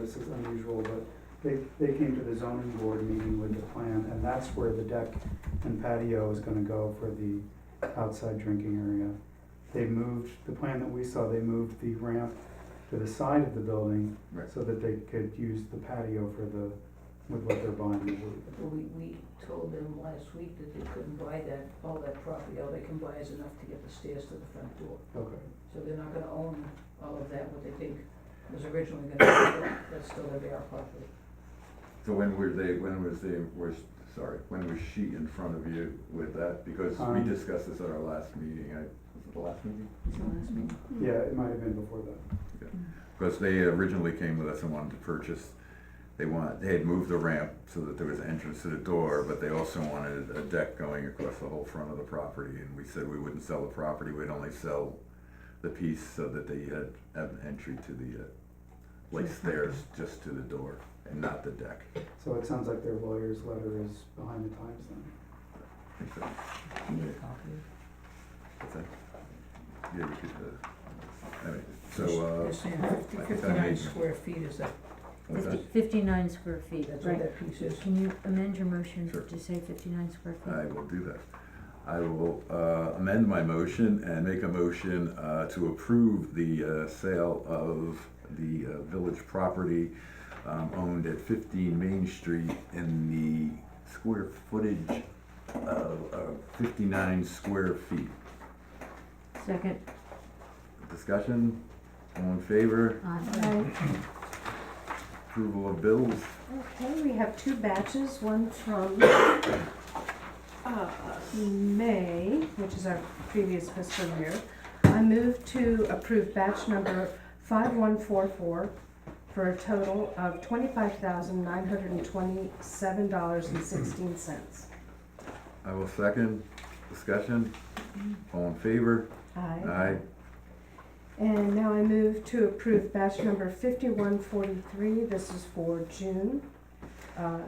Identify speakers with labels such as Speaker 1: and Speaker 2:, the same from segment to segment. Speaker 1: this is unusual, but they, they came to the zoning board meeting with the plan, and that's where the deck and patio is gonna go for the outside drinking area. They moved, the plan that we saw, they moved the ramp to the side of the building
Speaker 2: Right.
Speaker 1: so that they could use the patio for the, with what they're buying. the wood.
Speaker 3: Well, We, we told them last week that they couldn't buy that, all that property, all they can buy is enough to get the stairs to the front door.
Speaker 1: Okay.
Speaker 3: So they're not gonna own all of that, what they think was originally gonna be, built. that's still gonna be our property.
Speaker 2: So when were they, when was they, was, sorry, when was she in front of you with that? Because we
Speaker 1: Um,
Speaker 2: discussed this at our last meeting, I, was it the last meeting?
Speaker 1: Yeah, it might have been before that.
Speaker 2: Because they originally came with us and wanted to purchase, they wanted, they had moved the ramp so that there was an entrance to the door, but they also wanted a deck going across the whole front of the property, and we said we wouldn't sell the property, we'd only sell the piece so that they had, have an entry to the, uh, like stairs just to the door and not the deck.
Speaker 1: So it sounds like their lawyer's letter is behind the times then.
Speaker 2: I think so. What's that? Yeah, we could, uh, anyway, so,
Speaker 3: They're
Speaker 2: uh,
Speaker 3: saying fifty,
Speaker 2: I think I
Speaker 3: fifty-nine
Speaker 2: made-
Speaker 3: square feet is that,
Speaker 2: what's that?
Speaker 4: Fifty- Fifty-nine square feet,
Speaker 3: that's what
Speaker 4: right.
Speaker 3: that piece is.
Speaker 4: Can you amend your motion
Speaker 2: Sure.
Speaker 4: to say fifty-nine square
Speaker 2: I
Speaker 4: feet?
Speaker 2: will do that. I will uh, amend my motion and make a motion uh, to approve the uh, sale of the uh, village property um, owned at 15 Main Street in the square footage of of 59 square feet.
Speaker 4: Second,
Speaker 2: Discussion? All in favor?
Speaker 4: uh, aye.
Speaker 2: Approval of bills?
Speaker 5: Okay, we have two batches, one from uh, May, which is our previous fiscal year. I move to approve batch number 5144 for a total of $25,927.16.
Speaker 2: I will second. Discussion? All in favor?
Speaker 5: Aye.
Speaker 2: Aye.
Speaker 5: And now I move to approve batch number 5143. This is for June uh,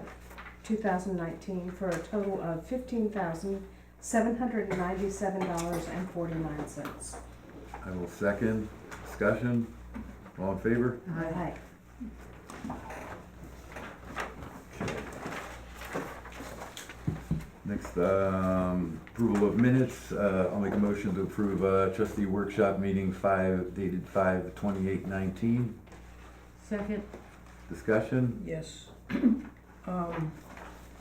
Speaker 5: 2019 for a total of $15,797.49.
Speaker 2: I will second. Discussion? All in favor?
Speaker 5: Aye.
Speaker 2: Next, um, approval of minutes, uh, I'll make a motion to approve, uh, trustee workshop meeting five, dated five twenty-eight nineteen.
Speaker 4: Second,
Speaker 2: Discussion,
Speaker 3: Yes. Um,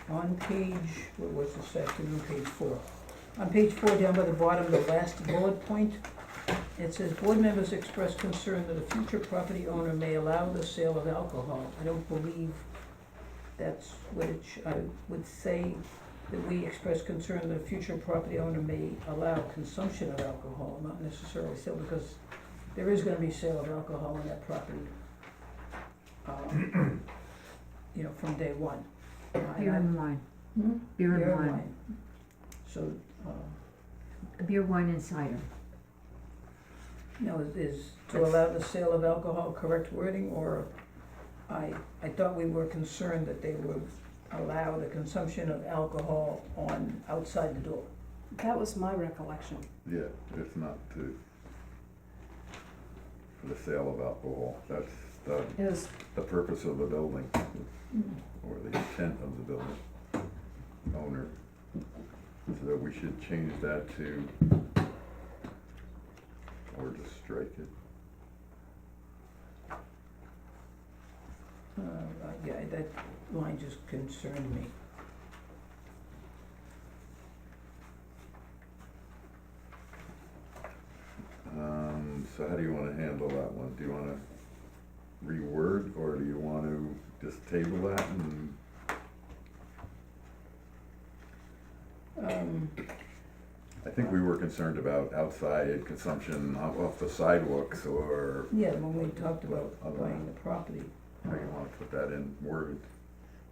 Speaker 3: on page, what was this afternoon, page four? On page four, down by the bottom, the last bullet point, it says, board members express concern that a future property owner may allow the sale of alcohol. I don't believe that's what it, sh- I would say that we express concern that a future property owner may allow consumption of alcohol, not necessarily sale, because there is gonna be sale of alcohol on that property. Um, you know, from day one. Uh, and
Speaker 4: beer
Speaker 3: I-
Speaker 4: and wine,
Speaker 3: Hmm?
Speaker 4: beer
Speaker 3: Beer
Speaker 4: and
Speaker 3: and
Speaker 4: wine,
Speaker 3: wine. So, uh,
Speaker 4: beer, wine and cider.
Speaker 3: no, is- is to allow the sale of alcohol correct wording, or I, I thought we were concerned that they would allow the consumption of alcohol on, outside the door.
Speaker 5: That was my recollection.
Speaker 2: yeah, it's not to, for the sale of alcohol, that's uh, the,
Speaker 5: It was,
Speaker 2: the purpose of the building, or the intent of the building owner. So that we should change that to, or just strike it.
Speaker 3: Uh, I- yeah, that line just concerned me.
Speaker 2: Um, so how do you wanna handle that one? Do you wanna reword, or do you wanna just table that and,
Speaker 3: Um,
Speaker 2: I think we were concerned about outside consumption off off the sidewalks, or
Speaker 3: yeah, when we talked about
Speaker 2: Other-
Speaker 3: buying the property,
Speaker 2: how you wanna put that in word.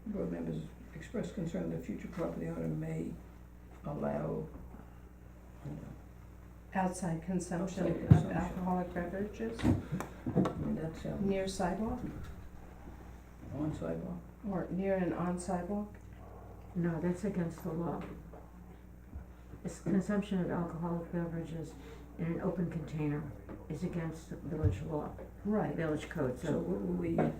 Speaker 3: board members express concern that future property owner may allow, I don't know,
Speaker 5: outside
Speaker 3: Outside
Speaker 5: consumption of
Speaker 3: consumption.
Speaker 5: alcoholic beverages
Speaker 3: And that sounds
Speaker 5: near sidewalk
Speaker 3: on sidewalk.
Speaker 5: or near and on sidewalk.
Speaker 4: No, that's against the law. It's consumption of alcoholic beverages in an open container is against the village law,
Speaker 5: Right.
Speaker 4: village code,
Speaker 3: So
Speaker 4: so
Speaker 3: what were we,